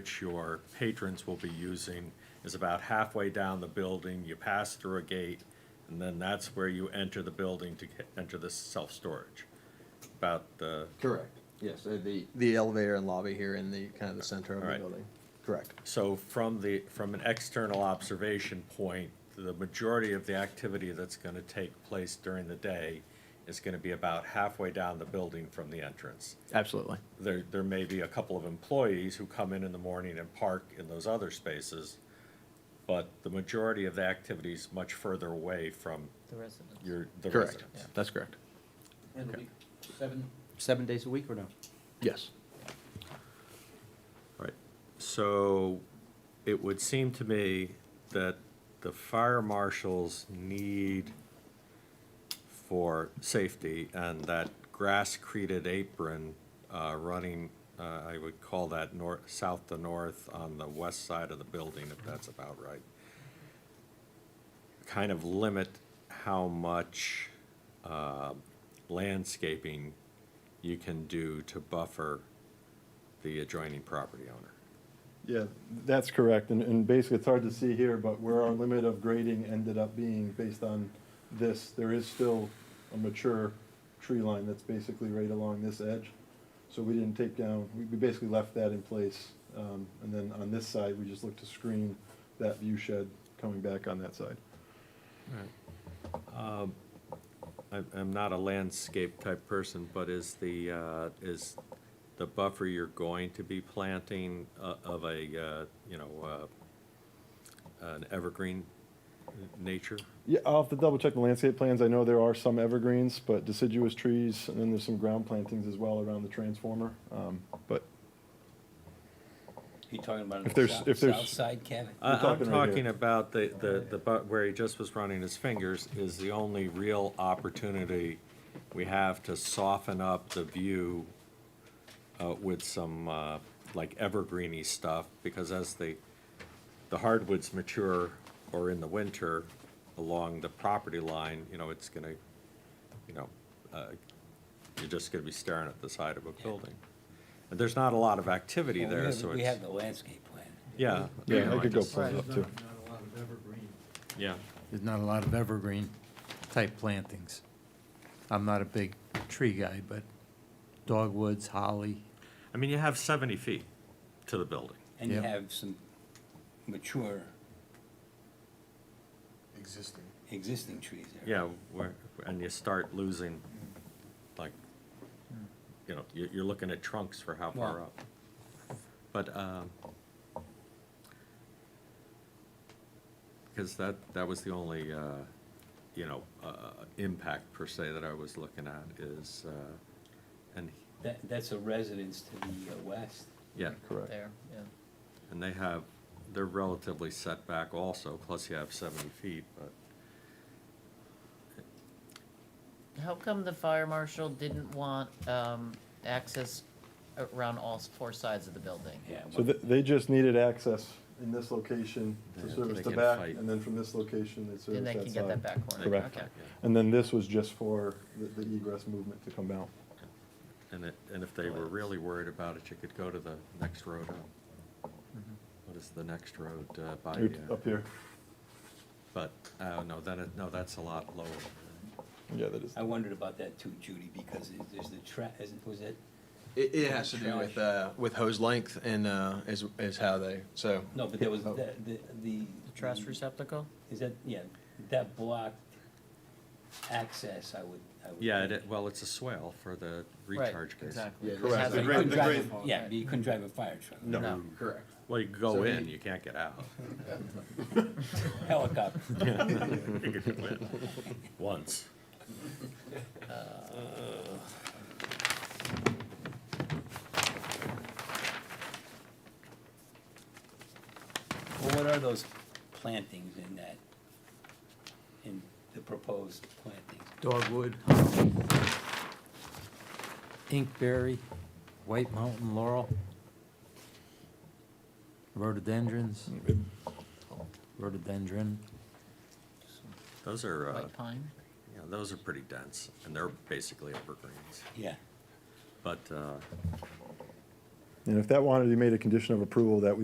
which your patrons will be using is about halfway down the building. You pass through a gate, and then that's where you enter the building to get- enter the self-storage. About the, Correct, yes, uh, the, the elevator and lobby here in the, kind of the center of All the right. building. Correct. so from the, from an external observation point, the majority of the activity that's going to take place during the day is going to be about halfway down the building from the entrance. Absolutely. there, there may be a couple of employees who come in in the morning and park in those other spaces, but the majority of the activity is much further away from The residents. your, the Correct, residents. that's correct. And it'll be seven, seven days a week or no? Yes. Right. So it would seem to me that the fire marshals need for safety and that grass-created apron uh, running, uh, I would call that north, south to north on the west side of the building, if that's about right. Kind of limit how much uh, landscaping you can do to buffer the adjoining property owner. Yeah, that's correct, and, and basically, it's hard to see here, but where our limit of grading ended up being based on this, there is still a mature tree line that's basically right along this edge. So we didn't take down, we, we basically left that in place, um, and then on this side, we just looked to screen that view shed coming back on that side. I'm, I'm not a landscape type person, but is the, uh, is the buffer you're going to be planting uh, of a, uh, you know, uh, an evergreen nature? Yeah, I'll have to double check the landscape plans. I know there are some evergreens, but deciduous trees, and then there's some ground plantings as well around the transformer. Um, but You talking about If there's- if there's- side cabin? I- We're I'm talking right here. talking about the, the, the, bu- where he just was running his fingers is the only real opportunity we have to soften up the view uh, with some, uh, like evergreeny stuff, because as the, the hardwoods mature or in the winter along the property line, you know, it's gonna, you know, uh, you're just gonna be staring at the side of a building. And there's not a lot of activity there, so it's. We have the landscape plan. Yeah. you yeah, know, I could go just- pull it up too. Yeah. There's not a lot of evergreen type plantings. I'm not a big tree guy, but dogwoods, holly, I mean, you have 70 feet to the building. And you Yeah. have some mature existing. existing trees there. Yeah, where, and you start losing, like, you know, you're, you're looking at trunks for how far Wow. up. But, um, because that, that was the only, uh, you know, uh, impact per se that I was looking at is, uh, and, That, that's a residence to the uh, west. yeah, Correct. There, yeah. and they have, they're relatively set back also, plus you have 70 feet, but. How come the fire marshal didn't want um, access around all s- four sides of the building? Yeah. So they, they just needed access in this location Yeah, to so service they the can back, fight. and then from this location, they service Then they that can get that side. back corner, okay. Correct. And then this was just for the, the egress movement to come out. And it, and if they were really worried about it, you could go to the next road up. What is the next road uh, by, uh, Up here, but, uh, no, then, it- no, that's a lot lower. yeah, that is. I wondered about that too, Judy, because it- there's the tra, isn't, was it, It, it has to do with, uh, with hose length and, uh, is, is how they, so. no, but there was the, the, the. The trash receptacle? Is that, yeah, that blocked access, I would, I would. Yeah, it, think. well, it's a swale for the Right, recharge case. Exactly. Yeah, It correct. has So a- you couldn't drive a- Yeah, but you couldn't drive a fire truck. No. Correct. Well, you could go So in, he- you can't get out. Helicopter. You could go in Once. Well, what are those plantings in that, in the proposed plantings? dogwood, holly, inkberry, white mountain laurel, rhododendrons, rhododendron. Those are, uh, White pine? yeah, those are pretty dense, and they're basically evergreens. Yeah. But, uh, Yeah, And if that wanted to be made a condition of approval, that we